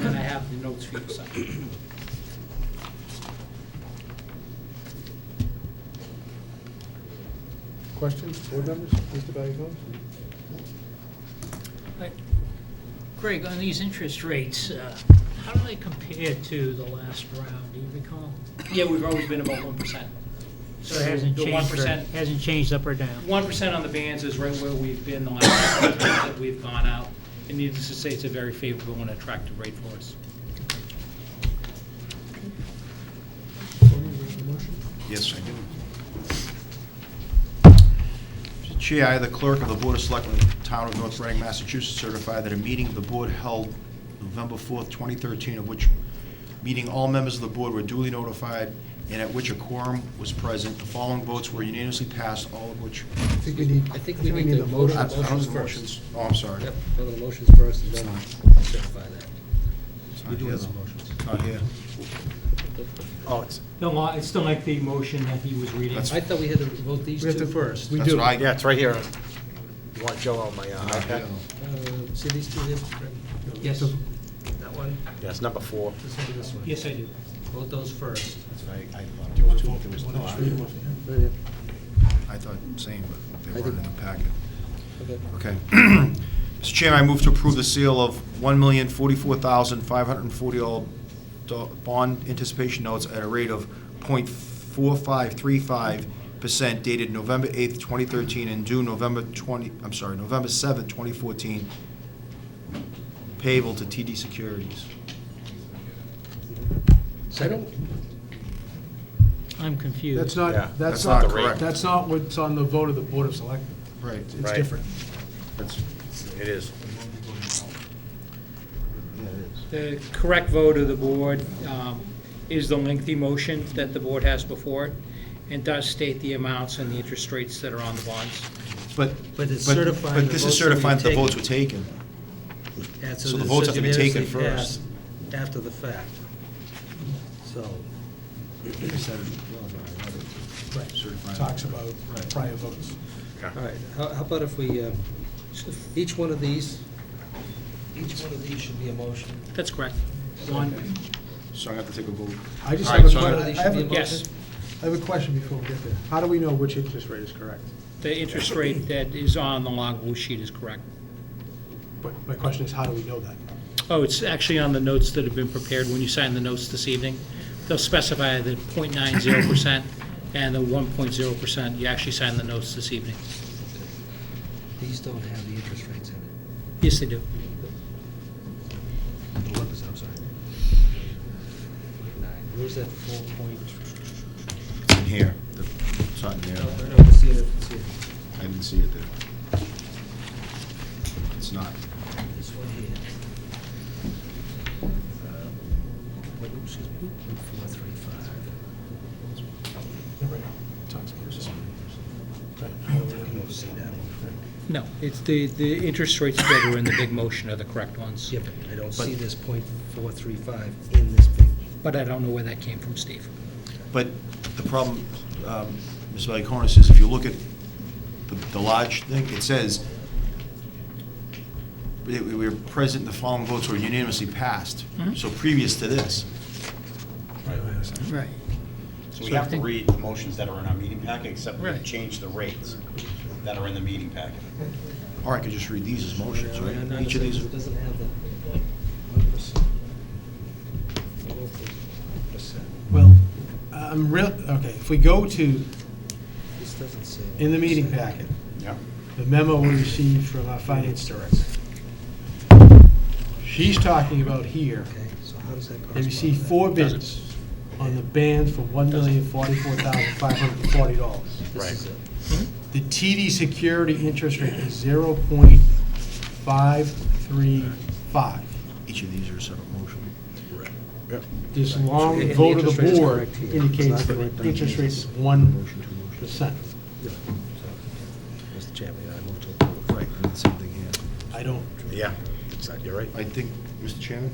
have the notes for you to sign. Questions, board members? Mr. Valiakonis? Right. Greg, on these interest rates, uh, how do they compare to the last round, do you recall? Yeah, we've always been about one percent. So it hasn't The changed, one or- percent, hasn't changed up or down? one percent on the bands is right where we've been the last couple of times that we've gone out. And needless to say, it's a very favorable and attractive rate for us. Tony, you have a motion? Yes, I do. Mr. Chair, I, the clerk of the Board of Selectmen of the Town of North Reading, Massachusetts, certify that a meeting of the board held November 4th, 2013, of which meeting all members of the board were duly notified and at which a quorum was present. The following votes were unanimously passed, all of which, I think we need, I think we need a to motion. I I vote don't Motions have first. motions. Oh, I'm sorry. Yep, go to the motions first and then we'll certify that. It's We're not doing here, the though. motions. It's not here. Oh, it's, No, I- it's still like the motion that he was reading. That's- I thought we had to vote these We have two to- first. We that's do. what I Yeah, got. it's right here. You want Joe on my uh, Not here, iPad? though. Uh, See these two there? Fred? Yes. That one? Yeah, it's number four. Let's do this one. Yes, I do. Vote those first. That's what I- I thought there was two, there was not. Right here. I thought same, but I they weren't in did- the packet. Okay. Okay. Mr. Chairman, I move to approve the sale of $1,044,540 bond anticipation notes at a rate of .4535% dated November 8th, 2013, and due November 20, I'm sorry, November 7th, 2014, payable to TD Securities. I don't, I'm confused. that's Yeah, not, that's that's not not correct. correct. That's not what's on the vote of the Board of Selectmen. Right. It's Right. different. That's, It is. yeah, it The is. correct vote of the board um, is the lengthy motion that the board has before it, and does state the amounts and the interest rates that are on the bonds. But, But it's but- certifying but the this votes is that we certifying that the taken. votes were taken. Yeah, So the this votes is have to be taken unanimously passed first. After the fact. So, Right. Talks about prior votes. all right, how how about if we, uh, each one of these, each one of these should be a motion. That's correct. One, So I'm gonna have to take a vote. I just All have a right, so I'm que- One gonna- of these I should have be a a- motion. yes, I have a question before we get there. How do we know which interest rate is correct? the interest rate that is on the logbook sheet is correct. But my question is, how do we know that? Oh, it's actually on the notes that have been prepared when you sign the notes this evening. They'll specify the .90% and the 1.0%. You actually sign the notes this evening. These don't have the interest rates in it. Yes, they do. The one percent, I'm sorry. Nine, where's that four point? in here. The- It's not in there. No, no, let's see it, let's see it. I didn't see it there. It's not. This one here. Um, Wait, oops, excuse me, point four three five. Talks about this. I don't see that one. No, it's the, the interest rates that are in the big motion are the correct ones. Yeah, but I don't see this point four three five in this big. But I don't know where that came from, Steve. But the problem, um, Ms. Valiakonis, is if you look at the- the large thing, it says, we we were present, the following votes were unanimously passed, so previous to this. Right. So we have to read the motions that are in our meeting packet, except we Right. change the rates that are in the meeting packet. Or I could just read these as motions, No, no, no, right? Each of these, It doesn't have the one percent. One percent. Well, I'm real, okay, if we go to, This doesn't say. in the meeting 1%. packet, Yeah. the memo we received from our finance director. She's talking about here, Okay, so how does that correspond? they received to that? four bids on the bands for one million forty-four thousand five hundred and forty dollars. This is it. The TD security interest rate is zero point five three five. each of these are a separate motion. This long And the vote of interest the rate is board correct here. indicates It's not that correct on interest here. rate is one Motion to motion. percent. Yeah. So, Mr. Chairman, I move to approve. Right, and it's something here. I don't, Yeah, it's not- you're right. I think, Mr. Chairman?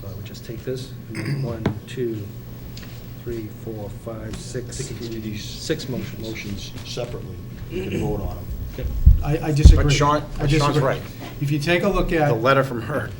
So I would just take this, and one, two, three, four, five, six. I think you do these- Six motions. motions separately, you can vote on them. I, I disagree. Sean- I but Sean's disagree. right. If you take a look at. The letter from her.